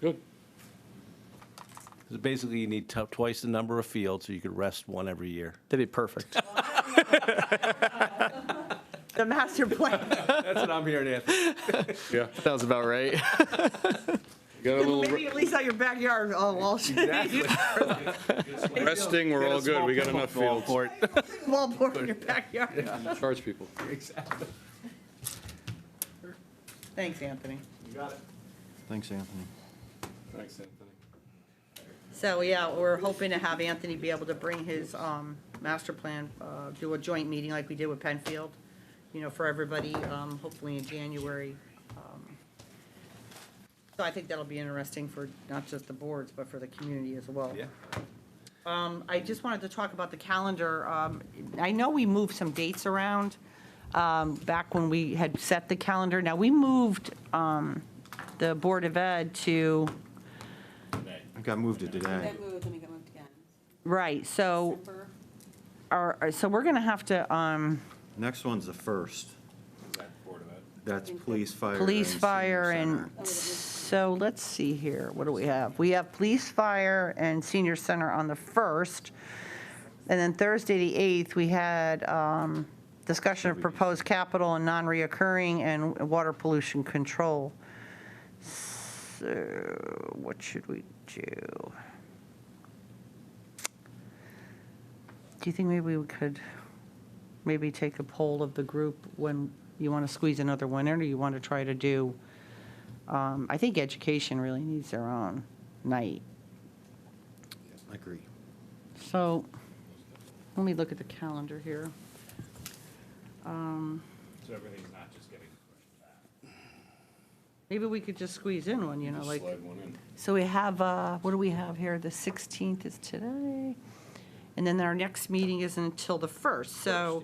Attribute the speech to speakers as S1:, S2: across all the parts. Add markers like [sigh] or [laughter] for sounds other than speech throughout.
S1: Good.
S2: 'Cause Basically, you need tu- twice the number of fields, so you could rest one every year.
S3: That'd be perfect.
S4: The master plan.
S2: [laughs] That's what I'm hearing, Anthony.
S1: [laughs] Yeah.
S3: Sounds about
S1: [laughs]
S3: right.
S1: Got a little
S4: Maybe at least out your backyard, all [laughs] Walsh,
S1: resting, we're all good, we got enough fields.
S4: wallboard in your backyard.
S1: Charge people.
S4: Thanks, Anthony.
S3: Thanks, Anthony.
S1: Thanks, Anthony.
S4: So, yeah, we're hoping to have Anthony be able to bring his um, master plan, uh, do a joint meeting like we did with Penfield, you know, for everybody, um, hopefully in January. Um, So I think that'll be interesting for not just the boards, but for the community as well.
S2: Yeah.
S4: Um, I just wanted to talk about the calendar. Um, I know we moved some dates around um, back when we had set the calendar. Now, we moved um, the Board of Ed to,
S3: I got moved to today.
S5: That move was gonna get moved again.
S4: right, so,
S5: December.
S4: our- so we're going to have to, um,
S3: Next one's the first. That's police, fire.
S4: police,
S3: and senior
S4: fire, and,
S3: center.
S5: Oh,
S4: so let's see here, what do we have? We have police, fire, and senior center on the 1st. And then Thursday, the 8th, we had um, discussion of proposed capital and non-reoccurring and water pollution control. So what should we do? Do you think maybe we could maybe take a poll of the group when you want to squeeze another one in or you want to try to do? um, I think education really needs their own night.
S3: I agree.
S4: So let me look at the calendar here. Um,
S6: So everything's not just getting pushed back.
S4: Maybe we could just squeeze in one, you know,
S6: Just
S4: like,
S6: slide one in.
S4: so we have, uh, what do we have here? The 16th is today. And then our next meeting isn't until the 1st, so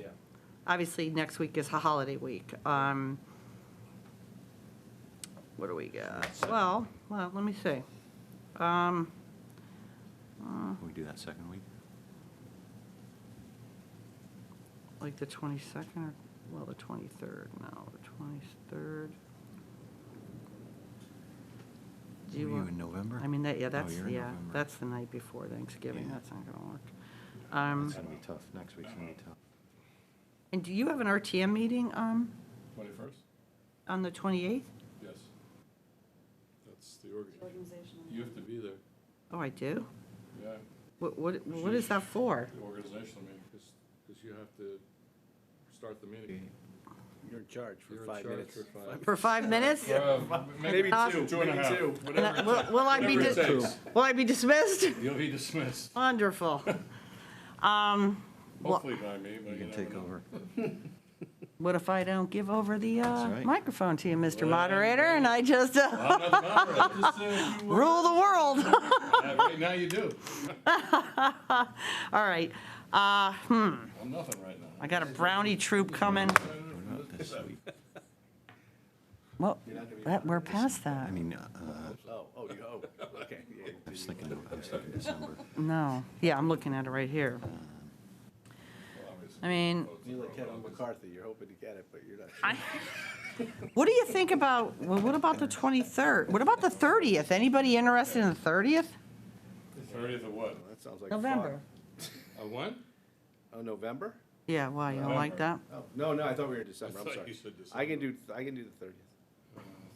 S4: obviously next week is a holiday week. Um, What do we got? Well, well, let me see. Um,
S3: Can we do that second week?
S4: like the 22nd or, well, the 23rd, no, the 23rd. Do
S3: Were
S4: you
S3: you
S4: want,
S3: in November?
S4: I mean, that, yeah,
S3: Oh,
S4: that's,
S3: you're in
S4: yeah,
S3: November.
S4: that's the night before Thanksgiving,
S3: Yeah.
S4: that's not gonna work. Um,
S3: It's gonna be tough. Next week's gonna be tough.
S4: and do you have an RTM meeting, um,
S6: Twenty-first?
S4: on the 28th?
S6: Yes. That's the org,
S5: Organizational.
S6: you have to be there,
S4: Oh, I do?
S6: yeah,
S4: What, what, what is that for?
S6: the organizational meeting, because, you have to start the meeting.
S2: You're in charge for
S6: You're in
S2: five
S6: charge
S2: minutes.
S6: for five.
S4: For five minutes?
S6: Uh, Maybe
S4: Uh,
S6: two, two and a half,
S4: And
S6: whatever,
S4: I- Will will I be,
S6: whatever it
S4: dis-
S6: takes.
S4: will I be dismissed? [laughs]
S6: You'll be dismissed,
S4: Wonderful. Well-
S6: hopefully by me, but you
S3: You can
S6: never
S3: take
S6: know.
S7: [laughs]
S3: over.
S4: What if I don't give over the uh,
S3: right.
S4: microphone to you, Mr.
S6: Well,
S4: Moderator, and I just uh,
S6: I'm not the moderator, just, uh, [laughs] you, uh,
S4: rule the world? [laughs]
S6: Right now you do,
S4: All right,
S6: I'm nothing right now.
S4: I got a brownie troop coming.
S3: This
S4: [laughs]
S3: week.
S4: Well, that, we're past
S3: I
S4: that.
S3: mean, uh,
S2: Oh, oh, you, oh, okay. yeah.
S3: I was thinking, I was thinking December.
S4: No, yeah, I'm looking at it right here. I mean,
S2: You're like Kevin McCarthy, you're hoping to get it, but you're not.
S4: what do you think about, well, what about the 23rd? What about the 30th? Anybody interested in the 30th?
S6: Thirtieth of what,
S2: That sounds like fun.
S4: November.
S6: a one?
S2: Oh, November?
S4: Yeah, why, you don't like that?
S6: November.
S2: Oh, no, no, I thought we were in December,
S6: I
S2: I'm
S6: thought
S2: sorry.
S6: you said
S2: I can do, I can do the thirtieth.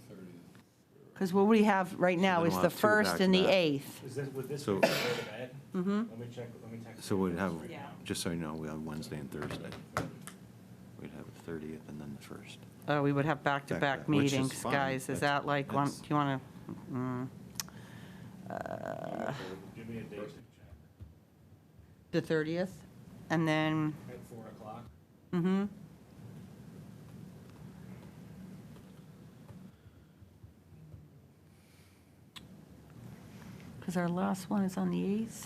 S6: Thirtieth.
S4: Because what we have right now
S3: then
S4: is
S3: we'll
S4: the
S3: have two
S4: 1st and the
S3: back-to-back.
S4: 8th.
S7: Is this, would this be
S3: So-
S7: the Board of Ed? Mm-hmm. Let me check, let me check.
S3: So we'd have,
S5: Yeah.
S3: just so you know, we have Wednesday and Thursday. We'd have the 30th and then the first.
S4: Oh, we would have back-to-back
S3: Back-to-back, which is
S4: meetings,
S3: fine.
S4: guys. Is
S3: That's-
S4: that like, one-
S3: that's-
S4: do you mm. want to,
S7: Give me a date.
S4: the 30th? And then,
S7: At four o'clock?
S4: mm-hmm. Because our last one is on the 8th.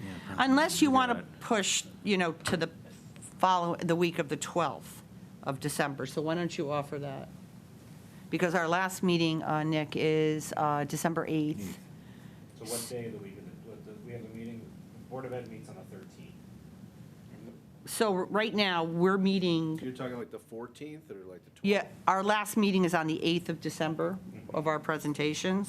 S3: Yeah, probably.
S4: Unless you
S3: We
S4: want to
S3: got-
S4: push, you know, to the follow, the week of the 12th of December. So why don't you offer that? Because our last meeting, uh, Nick, is uh, December 8th.
S7: So what day of the week is it? What the- We have a meeting, the Board of Ed meets on the thirteenth.
S4: So right now, we're meeting,
S2: You're talking like the fourteenth or like the twelfth?
S4: yeah, our last meeting is on the 8th of December of our presentations.